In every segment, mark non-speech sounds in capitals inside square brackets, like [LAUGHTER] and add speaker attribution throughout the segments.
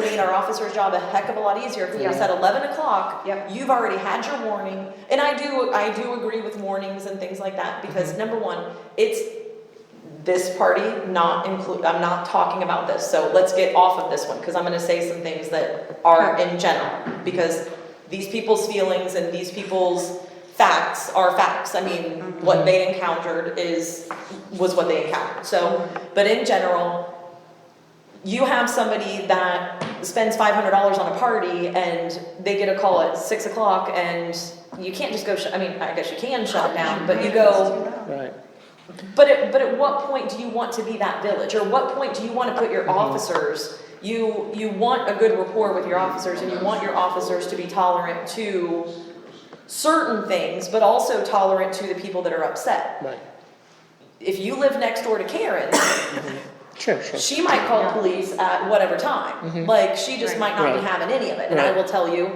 Speaker 1: made our officer's job a heck of a lot easier, because we
Speaker 2: Yeah.
Speaker 1: said eleven o'clock.
Speaker 2: Yep.
Speaker 1: You've already had your warning, and I do, I do agree with warnings and things like that,
Speaker 2: Mm-hmm.
Speaker 1: because number one, it's this party not include, I'm not talking about this, so let's get off of this one, cause I'm gonna say some things that are in general, because these people's feelings and these people's facts are facts, I mean, what they encountered is, was what they encountered, so, but in general, you have somebody that spends five hundred dollars on a party and they get a call at six o'clock and you can't just go, shut- I mean, I guess you can shut down, but you go,
Speaker 3: Right.
Speaker 1: but at, but at what point do you want to be that village, or what point do you want to put your officers? You you want a good rapport with your officers, and you want your officers to be tolerant to certain things, but also tolerant to the people that are upset.
Speaker 3: Right.
Speaker 1: If you live next door to Karen,
Speaker 3: Sure, sure.
Speaker 1: she might call police at whatever time. Like she just might not be
Speaker 3: Right.
Speaker 1: having any of it, and I
Speaker 3: Right.
Speaker 1: will tell you.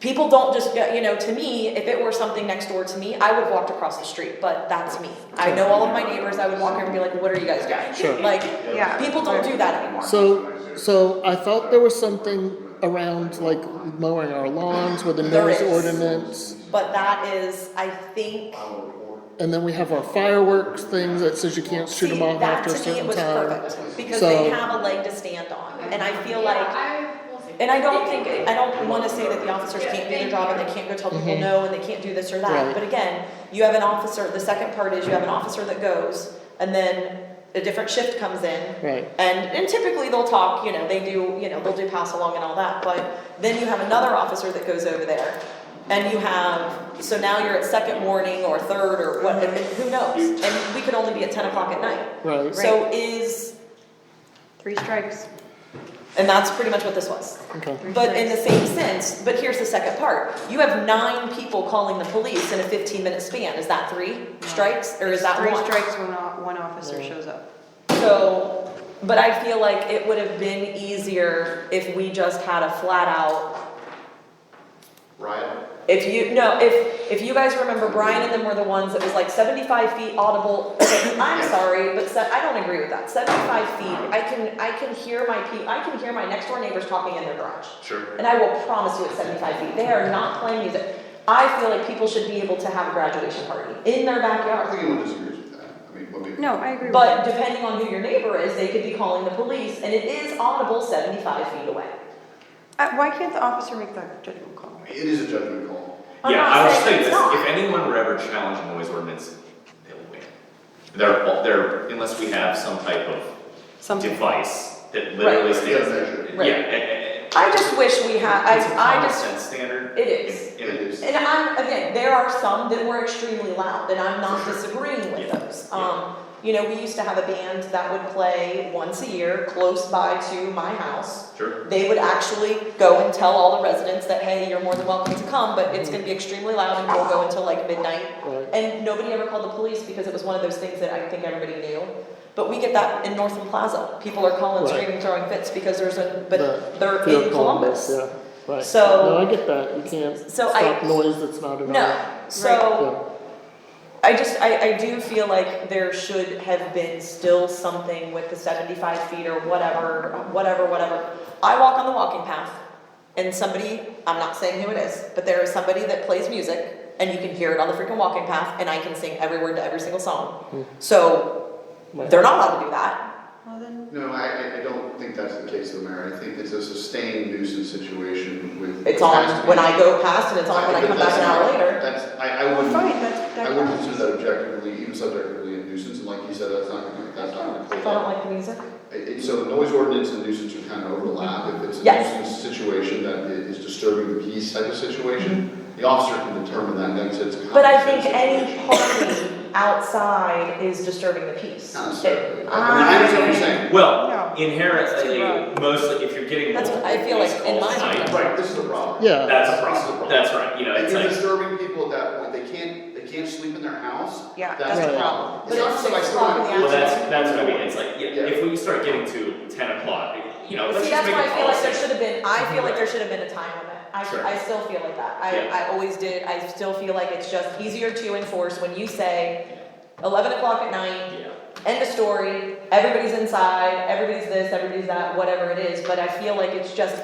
Speaker 1: People don't just, go- you know, to me, if it were something next door to me, I would have walked across the street, but that's me. I know all of my neighbors, I would walk here and be like, what are you guys doing?
Speaker 3: Sure.
Speaker 1: Like,
Speaker 2: Yeah.
Speaker 1: people don't do that anymore.
Speaker 3: So, so I thought there was something around like mowing our lawns with a
Speaker 1: There
Speaker 3: noise
Speaker 1: is.
Speaker 3: ordinance.
Speaker 1: But that is, I think,
Speaker 3: And then we have our fireworks things that says you can't shoot
Speaker 1: see,
Speaker 3: them off
Speaker 1: that
Speaker 3: after a
Speaker 1: to me
Speaker 3: certain
Speaker 1: was
Speaker 3: time.
Speaker 1: perfect, because they
Speaker 3: So-
Speaker 1: have a leg to stand on, and I feel
Speaker 4: Yeah,
Speaker 1: like.
Speaker 4: I will say-
Speaker 1: And I don't think, I don't wanna say that the officers can't do their job and they can't go tell people no and they can't do this or that,
Speaker 3: Mm-hmm. Right.
Speaker 1: but again, you have an officer, the second part is you have an officer that goes, and then a different shift comes in,
Speaker 3: Right.
Speaker 1: and, and typically they'll talk, you know, they do, you know, they'll do pass along and all that, but then you have another officer that goes over there. And you have, so now you're at second warning or third or what, and who knows? And we could only be at ten o'clock at night.
Speaker 3: Right.
Speaker 1: So is,
Speaker 2: Three strikes.
Speaker 1: and that's pretty much what this was.
Speaker 3: Okay.
Speaker 1: But in the same sense, but here's the second part. You have nine people calling the police in a fifteen minute span. Is that three strikes or is that
Speaker 2: Three
Speaker 1: one?
Speaker 2: strikes when o- one officer shows up.
Speaker 1: So, but I feel like it would have been easier if we just had a flat out,
Speaker 5: Right.
Speaker 1: if you, no, if, if you guys remember, Brian and them were the ones that was like seventy-five feet audible. [COUGHS] I'm sorry, but se- I don't agree with that. Seventy-five feet, I can, I can hear my pe- I can hear my next door neighbors talking in their garage.
Speaker 5: Sure.
Speaker 1: And I will promise you at seventy-five feet, they are not playing music. I feel like people should be able to have a graduation party in their
Speaker 5: I don't
Speaker 1: backyard.
Speaker 5: think anyone disagrees with that. I mean, let me.
Speaker 2: No, I agree with
Speaker 1: But
Speaker 2: that.
Speaker 1: depending on who your neighbor is, they could be calling the police, and it is audible seventy-five feet away.
Speaker 2: Uh, Why can't the officer make that judgment call?
Speaker 5: It is a judgment call.
Speaker 1: I'm
Speaker 6: Yeah,
Speaker 1: not
Speaker 6: I was
Speaker 1: saying
Speaker 6: saying
Speaker 1: it's
Speaker 6: this,
Speaker 1: not.
Speaker 6: if anyone were ever challenged noise ordinance, they'll win. They're, all- they're, unless we have some type of
Speaker 2: Something.
Speaker 6: device that literally
Speaker 5: Right.
Speaker 6: stands.
Speaker 1: Right.
Speaker 6: Yeah, eh, eh, eh,
Speaker 1: I just wish we had,
Speaker 6: it's a
Speaker 1: I, I
Speaker 6: common
Speaker 1: just,
Speaker 6: sense standard.
Speaker 1: it is.
Speaker 6: And- and
Speaker 5: It is.
Speaker 1: and I'm, again, there are some that were extremely loud, and I'm not disagreeing with
Speaker 6: Yeah.
Speaker 1: those.
Speaker 6: Yeah.
Speaker 1: Um, you know, we used to have a band that would play once a year, close by to my house.
Speaker 6: Sure,
Speaker 1: they would actually go and tell all the residents that, hey, you're more than welcome to come, but it's gonna be extremely loud and we'll go until like midnight.
Speaker 3: Right.
Speaker 1: And nobody ever called the police because it was one of those things that I think everybody knew. But we get that in Northland Plaza. People are calling,
Speaker 3: Right.
Speaker 1: screaming, throwing fits because there's a,
Speaker 3: The
Speaker 1: but they're
Speaker 3: Fear
Speaker 1: in
Speaker 3: of
Speaker 1: Columbus.
Speaker 3: Yeah, right.
Speaker 1: So-
Speaker 3: No, I get that. You can't
Speaker 1: So I-
Speaker 3: stop noise that's not in our.
Speaker 1: No, so
Speaker 3: Yeah.
Speaker 1: I just, I, I do feel like there should have been still something with the seventy-five feet or whatever, whatever, whatever. I walk on the walking path and somebody, I'm not saying who it is, but there is somebody that plays music and you can hear it on the freaking walking path and I can sing every word to every single song. So
Speaker 3: Right.
Speaker 1: they're not allowed to do that.
Speaker 2: Well, then,
Speaker 5: No, I, I- I don't think that's the case, though, Mayor. I think it's a sustained nuisance situation with.
Speaker 1: It's
Speaker 5: has to
Speaker 1: on
Speaker 5: be-
Speaker 1: when I go past and it's on when I
Speaker 5: but
Speaker 1: come back
Speaker 5: that's
Speaker 1: an hour
Speaker 5: not-
Speaker 1: later.
Speaker 5: That's, I, I
Speaker 2: well,
Speaker 5: wouldn't,
Speaker 2: fine,
Speaker 5: I
Speaker 2: that's, that
Speaker 5: wouldn't
Speaker 2: counts.
Speaker 5: consider that objectively, even subjectively a nuisance, and like you said, that's not, gonna- that's not.
Speaker 1: If I
Speaker 5: gonna
Speaker 1: don't like the music.
Speaker 5: It- it- So noise ordinance and nuisance are kind of overlap. If it's a
Speaker 1: Yes.
Speaker 5: nuisance situation that i- is disturbing the peace type of situation, the officer can determine that, then it's a.
Speaker 1: But I
Speaker 5: common
Speaker 1: think
Speaker 5: sense
Speaker 1: any
Speaker 5: situation.
Speaker 1: party outside is disturbing the peace.
Speaker 5: Not necessarily. I mean, I
Speaker 1: I-
Speaker 5: understand what you're saying.
Speaker 2: No,
Speaker 6: well,
Speaker 2: it's too
Speaker 6: inherently,
Speaker 2: broad.
Speaker 6: mostly, if you're getting
Speaker 1: That's what
Speaker 6: multiple
Speaker 1: I feel like
Speaker 6: police
Speaker 1: in
Speaker 6: calls
Speaker 1: my-
Speaker 6: tonight,
Speaker 5: Right, this is a problem.
Speaker 3: Yeah.
Speaker 6: that's a
Speaker 5: That's the problem.
Speaker 6: problem, that's right, you know,
Speaker 5: If
Speaker 6: it's
Speaker 5: you're
Speaker 6: like,
Speaker 5: disturbing people at that point, they can't, they can't sleep in their house.
Speaker 2: Yeah,
Speaker 5: That's
Speaker 3: that's
Speaker 5: the
Speaker 3: right.
Speaker 5: problem.
Speaker 1: But
Speaker 5: not
Speaker 1: it's
Speaker 5: just that I
Speaker 1: six
Speaker 5: still want
Speaker 1: o'clock
Speaker 5: to
Speaker 1: in the
Speaker 6: well,
Speaker 5: do
Speaker 6: that's,
Speaker 5: something.
Speaker 6: that's what I mean, it's like, yeah, if we start getting to ten o'clock, you know, let's
Speaker 1: See,
Speaker 6: just
Speaker 1: that's
Speaker 6: make
Speaker 1: why I
Speaker 6: a
Speaker 1: feel like there
Speaker 6: policy.
Speaker 1: should have been, I feel like there should have been a time limit. I,
Speaker 6: Sure.
Speaker 1: I still feel like that.
Speaker 6: Yeah.
Speaker 1: I, I always did. I still feel like it's just easier to enforce when you say eleven o'clock at night,
Speaker 6: Yeah,
Speaker 1: end of story, everybody's inside, everybody's this, everybody's that, whatever it is, but I feel like it's just